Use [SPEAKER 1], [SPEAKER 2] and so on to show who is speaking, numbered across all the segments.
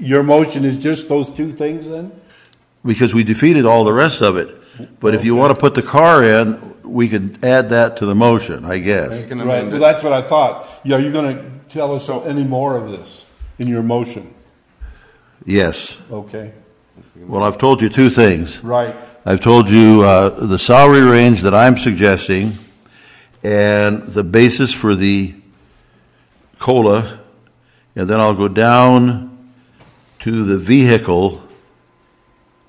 [SPEAKER 1] Your motion is just those two things then?
[SPEAKER 2] because we defeated all the rest of it. But if you want to put the car in, we could add that to the motion, I guess.
[SPEAKER 3] can
[SPEAKER 1] Right,
[SPEAKER 3] amend
[SPEAKER 1] well,
[SPEAKER 3] it.
[SPEAKER 1] that's what I thought. Yeah, Are you gonna tell us any more of this in your motion?
[SPEAKER 2] Yes.
[SPEAKER 1] Okay,
[SPEAKER 2] Well, I've told you two things.
[SPEAKER 1] right,
[SPEAKER 2] I've told you uh, the salary range that I'm suggesting and the basis for the COLA, and then I'll go down to the vehicle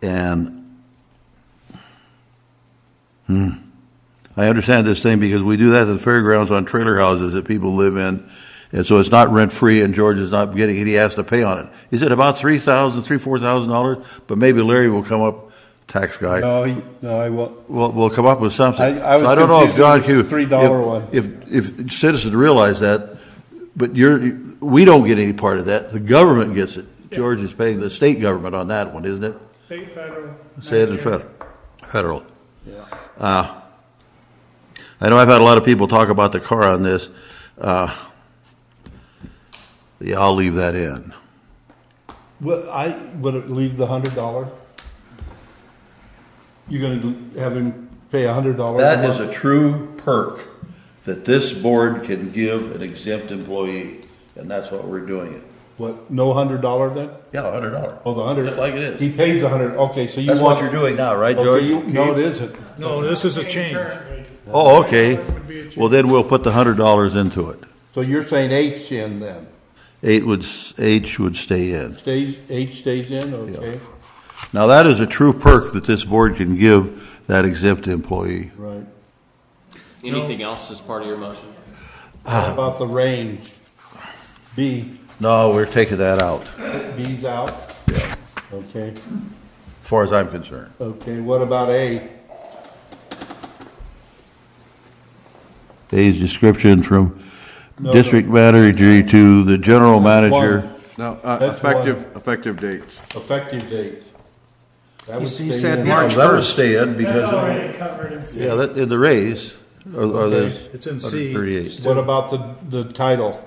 [SPEAKER 2] and, hmm, I understand this thing because we do that at the fairgrounds on trailer houses that people live in, and so it's not rent-free and George is not getting, he has to pay on it. Is it about three thousand, three, four thousand dollars? But maybe Larry will come up, tax guy
[SPEAKER 1] no, he- no, I won't.
[SPEAKER 2] we'll, we'll come up with something.
[SPEAKER 1] I- I was
[SPEAKER 2] So don't know if
[SPEAKER 1] confused
[SPEAKER 2] John
[SPEAKER 1] with the
[SPEAKER 2] Q.
[SPEAKER 1] $3
[SPEAKER 2] if-
[SPEAKER 1] one.
[SPEAKER 2] If, if citizens realize that, but you're, we don't get any part of that, the government gets it. George is paying the state government on that one, isn't it?
[SPEAKER 4] State, federal.
[SPEAKER 2] State and federal, federal. Uh, I know I've had a lot of people talk about the car on this. Uh, Yeah, I'll leave that in.
[SPEAKER 1] Well, I would it leave the hundred dollar. You're gonna do- have him pay a hundred dollars.
[SPEAKER 2] That is a true perk that this board can give an exempt employee, and that's what we're doing it.
[SPEAKER 1] what? No hundred dollar then?
[SPEAKER 2] Yeah, a hundred dollar.
[SPEAKER 1] Oh, the hundred.
[SPEAKER 2] Just like it is.
[SPEAKER 1] He pays a hundred. Okay, so you
[SPEAKER 2] That's
[SPEAKER 1] want
[SPEAKER 2] what you're doing now, right, George?
[SPEAKER 1] Okay, you, no, it isn't.
[SPEAKER 5] No, this is a change.
[SPEAKER 2] Oh, okay.
[SPEAKER 4] That would be a change.
[SPEAKER 2] Well, then we'll put the hundred dollars into it.
[SPEAKER 1] So you're saying H in then?
[SPEAKER 2] Eight would, s- H would stay in.
[SPEAKER 1] Stays H stays in. Okay,
[SPEAKER 2] Now, that is a true perk that this board can give that exempt employee.
[SPEAKER 1] right.
[SPEAKER 6] Anything else as part of your motion?
[SPEAKER 1] What about the range? B
[SPEAKER 2] No, we're taking that out, as
[SPEAKER 1] B's out. Okay.
[SPEAKER 2] far as I'm concerned.
[SPEAKER 1] Okay. What about A?
[SPEAKER 2] A's description from
[SPEAKER 1] No,
[SPEAKER 2] district manager to the general manager.
[SPEAKER 1] One,
[SPEAKER 3] No, uh,
[SPEAKER 1] That's
[SPEAKER 3] effective, effective dates.
[SPEAKER 1] effective date. That would stay
[SPEAKER 5] He said
[SPEAKER 1] in.
[SPEAKER 2] No,
[SPEAKER 5] March
[SPEAKER 2] That would
[SPEAKER 5] 1st.
[SPEAKER 2] stay in
[SPEAKER 4] That's
[SPEAKER 2] because,
[SPEAKER 4] already covered in
[SPEAKER 2] yeah, that, in the raise, or, or the.
[SPEAKER 1] Okay.
[SPEAKER 5] It's in C.
[SPEAKER 2] 138.
[SPEAKER 1] What about the, the title?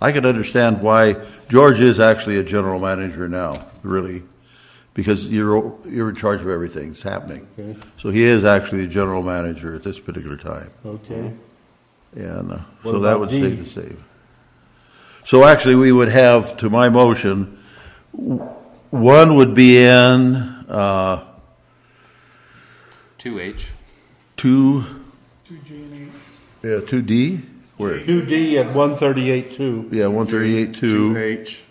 [SPEAKER 2] I can understand why George is actually a general manager now, really, because you're, you're in charge of everything that's happening.
[SPEAKER 1] Okay.
[SPEAKER 2] So he is actually a general manager at this particular time.
[SPEAKER 1] Okay.
[SPEAKER 2] And uh,
[SPEAKER 1] What
[SPEAKER 2] so that
[SPEAKER 1] about
[SPEAKER 2] would
[SPEAKER 1] D?
[SPEAKER 2] save the save. So actually, we would have, to my motion, w- one would be in uh,
[SPEAKER 6] Two H.
[SPEAKER 2] two,
[SPEAKER 4] two G and eight.
[SPEAKER 2] yeah, 2D? Where?
[SPEAKER 1] Two D at one thirty-eight two.
[SPEAKER 2] Yeah, 138, 2,
[SPEAKER 3] H.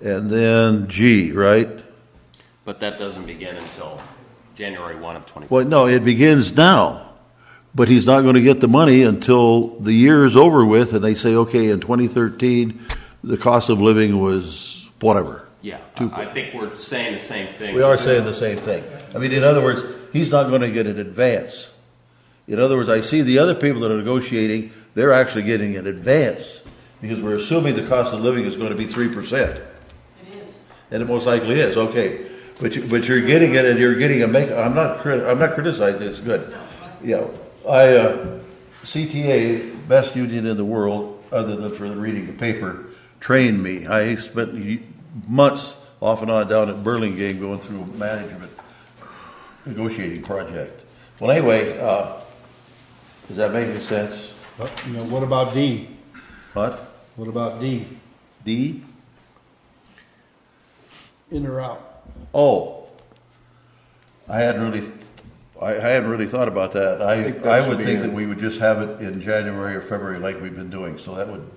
[SPEAKER 2] and then G, right?
[SPEAKER 6] But that doesn't begin until January one of twenty.
[SPEAKER 2] Well, no, it begins now, but he's not going to get the money until the year is over with, and they say, okay, in 2013, the cost of living was whatever.
[SPEAKER 6] Yeah,
[SPEAKER 2] Two-
[SPEAKER 6] I I think we're saying the same thing.
[SPEAKER 2] We are saying the same thing. I mean, in other words, he's not going to get an advance. In other words, I see the other people that are negotiating, they're actually getting an advance because we're assuming the cost of living is going to be 3%. And it most likely is, okay. But you, but you're getting it and you're getting a make, I'm not, crit- I'm not criticizing, it's good. Yeah, I, uh, CTA, best union in the world, other than for reading the paper, trained me. I spent ye- months off and on down at Burlingame going through a management negotiating project. Well, anyway, uh, does that make any sense?
[SPEAKER 1] Uh, You know, what about D?
[SPEAKER 2] What?
[SPEAKER 1] What about D?
[SPEAKER 2] D?
[SPEAKER 1] In or out?
[SPEAKER 2] Oh, I hadn't really, I, I hadn't really thought about that.
[SPEAKER 3] think
[SPEAKER 2] I,
[SPEAKER 3] that
[SPEAKER 2] I would
[SPEAKER 3] should be
[SPEAKER 2] think
[SPEAKER 3] in.
[SPEAKER 2] that we would just have it in January or February like we've been doing, so that would,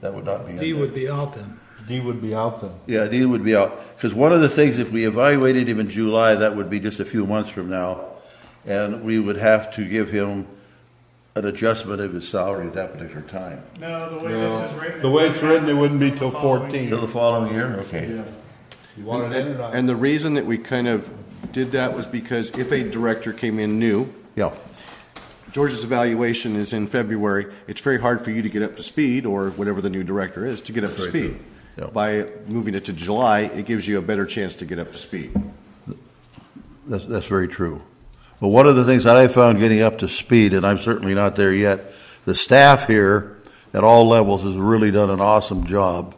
[SPEAKER 2] that would not be in
[SPEAKER 5] D
[SPEAKER 2] there.
[SPEAKER 5] would be out then.
[SPEAKER 1] D would be out then.
[SPEAKER 2] Yeah, D would be out, because one of the things, if we evaluated him in July, that would be just a few months from now, and we would have to give him an adjustment of his salary at that particular time.
[SPEAKER 4] No, the way this is written.
[SPEAKER 1] The way it's written, it wouldn't be till
[SPEAKER 2] Till
[SPEAKER 4] Following.
[SPEAKER 1] fourteen.
[SPEAKER 2] the following year, okay.
[SPEAKER 1] You want it in or out?
[SPEAKER 3] And the reason that we kind of did that was because if a director came in new,
[SPEAKER 2] Yeah,
[SPEAKER 3] George's evaluation is in February, it's very hard for you to get up to speed, or whatever the new director is, to get up to
[SPEAKER 2] That's very
[SPEAKER 3] speed.
[SPEAKER 2] true. Yeah.
[SPEAKER 3] By moving it to July, it gives you a better chance to get up to speed.
[SPEAKER 2] that's, that's very true. But one of the things that I found getting up to speed, and I'm certainly not there yet, the staff here at all levels has really done an awesome job